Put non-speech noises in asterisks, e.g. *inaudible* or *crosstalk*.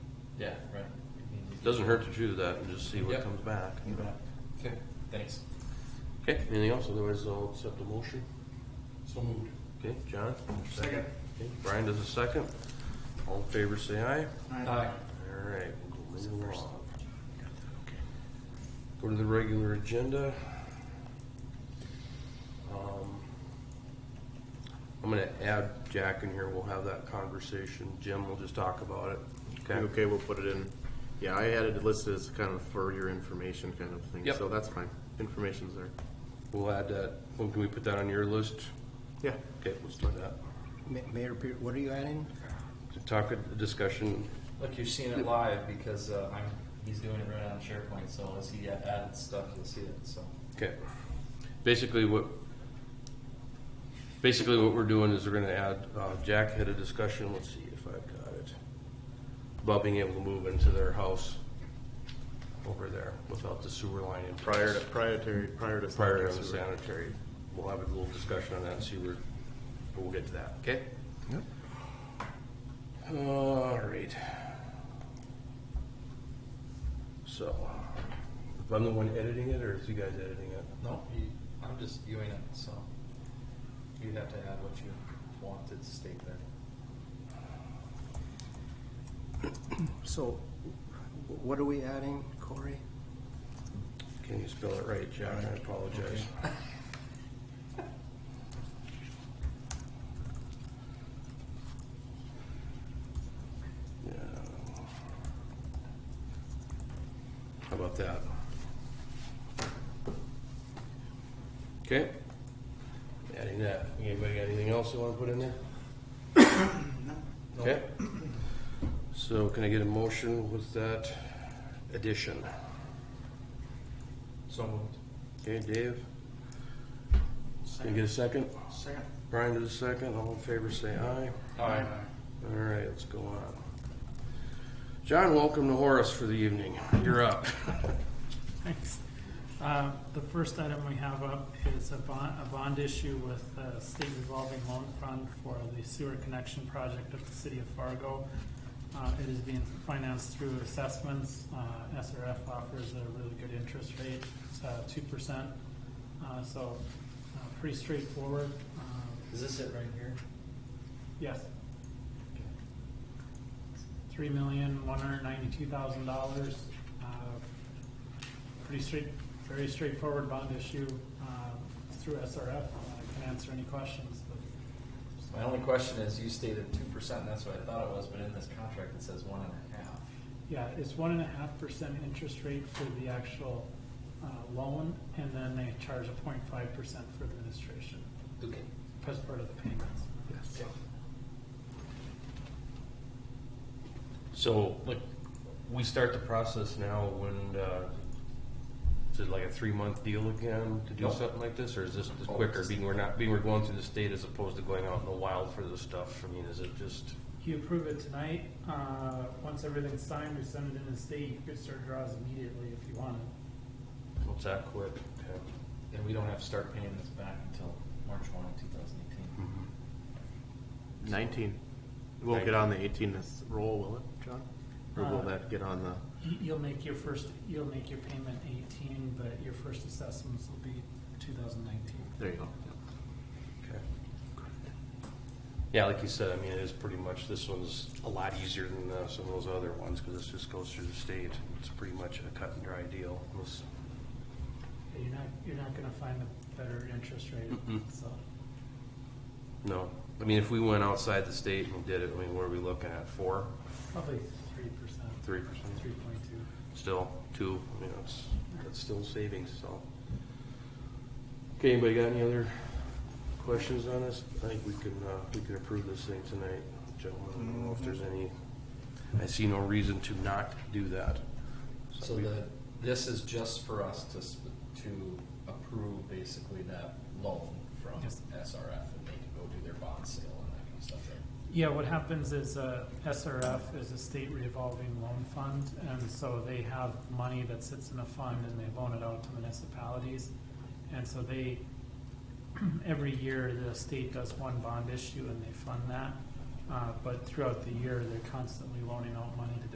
Yeah, right. Doesn't hurt to do that and just see what Yep. comes back. You bet. Okay, thanks. Okay, anything else? Otherwise, I'll accept the motion. So moved. Okay, John? Second. Brian does a second. All in favor, say aye. Aye. All right, we'll go move along. Go to the regular agenda. Um, I'm gonna add Jack in here, we'll have that conversation, Jim will just talk about it. You Okay, we'll put it in. Yeah, I had it listed as kind of for your information kind of thing, Yep. so that's fine. Information's there. We'll add that, well, can we put that on your list? Yeah. Okay, let's do that. Ma- Mayor, Pe- what are you adding? Talk, a discussion, Look, you're seeing it live because uh, I'm, he's doing it right on SharePoint, so as he adds stuff, you'll see it, so. Okay. Basically, what, basically what we're doing is we're gonna add, uh, Jack had a discussion, let's see if I've got it. About being able to move into their house over there without the sewer line in. place. Prior to, prior to, prior to. Prior to the sanitary. We'll have a little discussion on that and see where, but we'll get to that, okay? Yep. All right. So, I'm the one editing it or is you guys editing it? No, you, I'm just viewing it, so you have to add what you want to state there. So, wh- what are we adding, Corey? Can you spell it right, John? I apologize. Yeah. How about that? Okay. Adding that. Anybody got anything else you wanna put in there? No. Okay. So can I get a motion with that addition? So moved. Okay, Dave? Can you get a second? Second. Brian does a second, all in favor say aye. Aye. All right, let's go on. John, welcome to Horace for the evening. You're up. *laughs* Thanks. Uh, The first item we have up is a bond, a bond issue with the state revolving loan fund for the sewer connection project of the city of Fargo. Uh, It is being financed through assessments. Uh, SRF offers a really good interest rate, uh, two percent. So uh, pretty straightforward. Um, Is this it right here? Yes. Three million, one hundred ninety-two thousand dollars. Uh, Pretty straight, very straightforward bond issue um, through SRF. I can answer any questions, but. My only question is, you stated two percent, that's what I thought it was, but in this contract it says one and a half. Yeah, it's one and a half percent interest rate for the actual uh, loan, and then they charge a point five percent for administration Okay. as part of the payments. Yes. So, like, we start the process now when, uh, is it like a three-month deal again to do Nope. something like this? Or is this the Oh, quicker, it's- being we're not, being we're going through the state as opposed to going out in the wild for this stuff? I mean, is it just, You approve it tonight, uh, once everything's signed, we send it in the state, you could start draws immediately if you wanted. what's that quick? Okay. And we don't have to start paying this back until March one, two thousand eighteen. Nineteen. It won't get on the eighteen this roll, will it, John? Or will Uh, that get on the, You- You'll make your first, you'll make your payment eighteen, but your first assessments will be two thousand nineteen. there you go. Okay. Yeah, like you said, I mean, it is pretty much, this one's a lot easier than uh, some of those other ones, because this just goes through the state. It's pretty much a cut and dry deal. Let's- You're not, you're not gonna find a better interest rate, Mm-mm. so. No, I mean, if we went outside the state and did it, I mean, what are we looking at, four, Probably three percent, three percent? three point two. Still, two, I mean, that's, that's still savings, so. Okay, anybody got any other questions on this? I think we can, uh, we can approve this thing tonight, gentlemen. I don't know if there's any, I see no reason to not do that. So we- the, this is just for us to, s- to approve basically that loan from Yes. SRF and they can go do their bond sale and that kind of stuff there. Yeah, what happens is, uh, SRF is a state revolving loan fund, and so they have money that sits in a fund and they loan it out to municipalities. And so they, *clears throat* every year, the state does one bond issue and they fund that. Uh, but throughout the year, they're constantly loaning out money to